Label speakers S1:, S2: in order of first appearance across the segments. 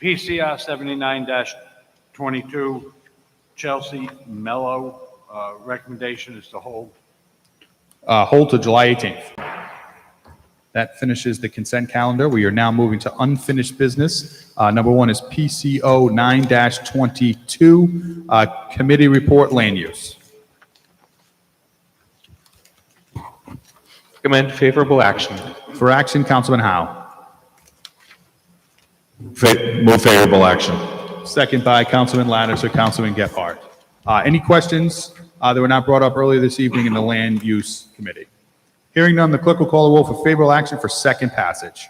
S1: PCR 79-22, Chelsea Mello, uh, recommendation is to hold.
S2: Uh, Hold to July 18th. That finishes the consent calendar. We are now moving to unfinished business. Uh, Number one is PCO 9-22, uh, Committee Report Land Use.
S3: Recommend favorable action.
S2: For action, Councilman Howe.
S4: Fa- Move favorable action.
S2: Second by Councilman Lattiser, Councilman Gephardt. Uh, Any questions uh, that were not brought up earlier this evening in the Land Use Committee? Hearing none, the clerk will call the roll for favorable action for second passage.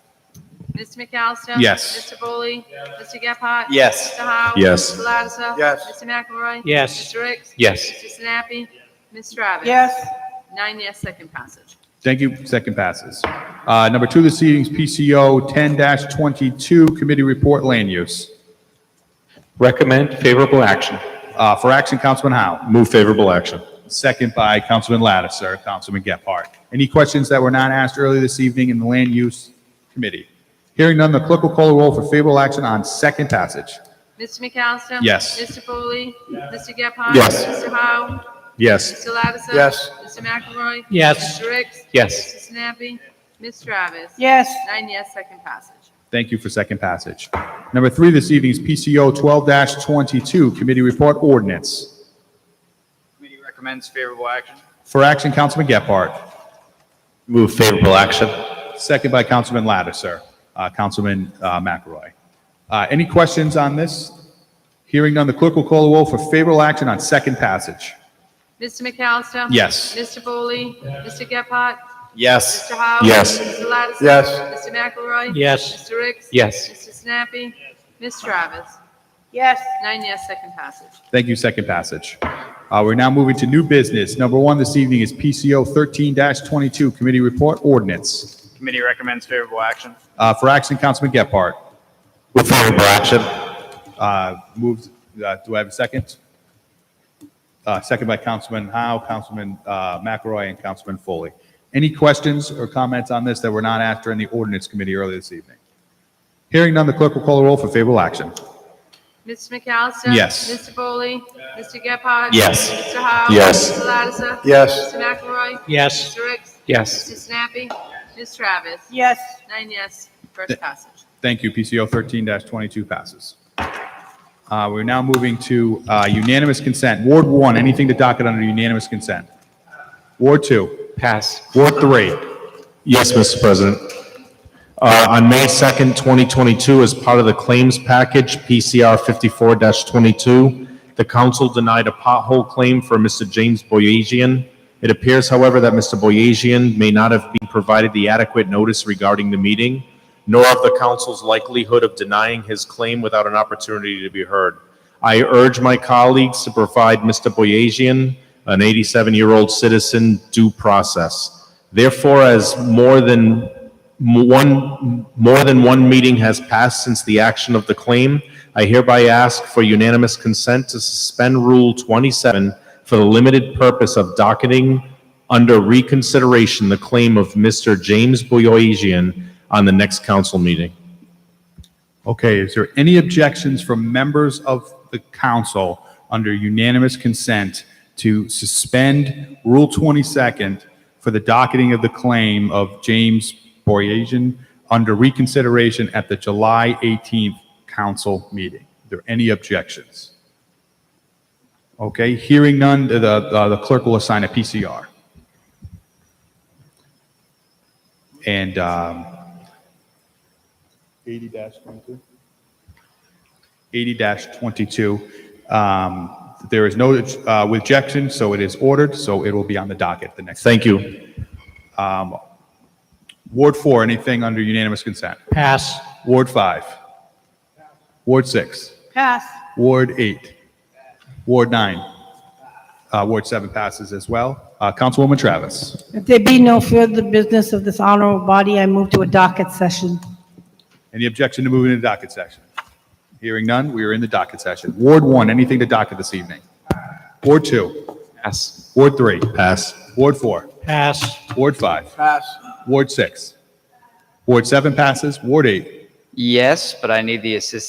S5: Mr. McAllister?
S2: Yes.
S5: Mr. Foley? Mr. Gephardt?
S3: Yes.
S5: Mr. Howe?
S4: Yes.
S5: Mr. Lattiser?
S6: Yes.
S5: Mr. McElroy?
S3: Yes.
S5: Mr. Ricks?
S3: Yes.
S5: Mr. Sinapi? Ms. Travis?
S6: yes,
S5: Nine yes, second passage.
S2: Thank you. Second passes. Uh, Number two this evening's PCO 10-22, Committee Report Land Use.
S3: Recommend favorable action.
S2: Uh, For action, Councilman Howe.
S4: Move favorable action.
S2: Second by Councilman Lattiser, Councilman Gephardt. Any questions that were not asked earlier this evening in the Land Use Committee? Hearing none, the clerk will call the roll for favorable action on second passage.
S5: Mr. McAllister?
S2: Yes.
S5: Mr. Foley? Mr. Gephardt?
S4: Yes.
S5: Mr. Howe?
S2: Yes.
S5: Mr. Lattiser?
S6: Yes.
S5: Mr. McElroy?
S3: Yes.
S5: Mr. Ricks?
S3: Yes.
S5: Mr. Sinapi? Ms. Travis?
S6: yes,
S5: Nine yes, second passage.
S2: Thank you for second passage. Number three this evening is PCO 12-22, Committee Report Ordinance.
S7: Committee recommends favorable action.
S2: For action, Councilman Gephardt.
S4: Move favorable action.
S2: Second by Councilman Lattiser, Uh, Councilman uh, McElroy. Uh, Any questions on this? Hearing none, the clerk will call the roll for favorable action on second passage.
S5: Mr. McAllister?
S2: Yes.
S5: Mr. Foley? Mr. Gephardt?
S7: Yes.
S5: Mr. Howe?
S4: Yes.
S5: Mr. Lattiser?
S6: Yes.
S5: Mr. McElroy?
S3: Yes.
S5: Mr. Ricks?
S3: Yes.
S5: Mr. Snappy, Ms. Travis?
S6: yes,
S5: Nine yes, second passage.
S2: Thank you, second passage. Uh, We're now moving to new business. Number one this evening is PCO 13-22, Committee Report Ordinance.
S7: Committee recommends favorable action.
S2: Uh, For action, Councilman Gephardt.
S4: Move favorable action.
S2: Uh, Moved, uh, do I have a second? Uh, Second by Councilman Howe, Councilman uh, McElroy, and Councilman Foley. Any questions or comments on this that were not after in the ordinance committee earlier this evening? Hearing none, the clerk will call the roll for favorable action.
S5: Mr. McAllister?
S2: Yes.
S5: Mr. Foley? Mr. Gephardt?
S4: Yes.
S5: Mr. Howe?
S4: Yes.
S5: Mr. Lattiser?
S6: Yes.
S5: Mr. McElroy?
S3: Yes.
S5: Mr. Ricks?
S3: Yes.
S5: Mr. Snappy, Ms. Travis?
S6: yes,
S5: Nine yes, first passage.
S2: Thank you. PCO 13-22 passes. Uh, We're now moving to uh, unanimous consent. Ward 1, anything to docket under unanimous consent? Ward 2,
S3: Pass.
S2: Ward 3,
S4: Yes, Mr. President. Uh, On May 2nd, 2022, as part of the claims package, PCR 54-22, the council denied a pothole claim for Mr. James Boyajian. It appears, however, that Mr. Boyajian may not have been provided the adequate notice regarding the meeting, nor of the council's likelihood of denying his claim without an opportunity to be heard. I urge my colleagues to provide Mr. Boyajian, an 87-year-old citizen, due process. Therefore, as more than m- one, more than one meeting has passed since the action of the claim, I hereby ask for unanimous consent to suspend Rule 27 for the limited purpose of docketing under reconsideration the claim of Mr. James Boyoisian on the next council meeting.
S2: Okay, is there any objections from members of the council under unanimous consent to suspend Rule 22nd for the docketing of the claim of James Boryasian under reconsideration at the July 18th council meeting? Are there any objections? Okay, hearing none, the, uh, the the clerk will assign a PCR. And, um, 80-22. 80-22. Um, There is no uh, objection, so it is ordered, so it will be on the docket the next. Um,
S4: Thank you.
S2: Ward 4, anything under unanimous consent?
S3: Pass.
S2: Ward 5? Ward 6?
S6: pass,
S2: Ward 8? Ward 9? Uh, Ward 7 passes as well. Uh, Councilwoman Travis?
S8: If there be no further business of this honorable body, I move to a docket session.
S2: Any objection to moving into docket session? Hearing none, we are in the docket session. Ward 1, anything to docket this evening? Ward 2?
S3: Pass.
S2: Ward 3?
S4: Pass.
S2: Ward 4?
S3: Pass.
S2: Ward 5.
S6: pass,
S2: Ward 6. Ward 7 passes. Ward 8.
S7: Yes, but I need the assistance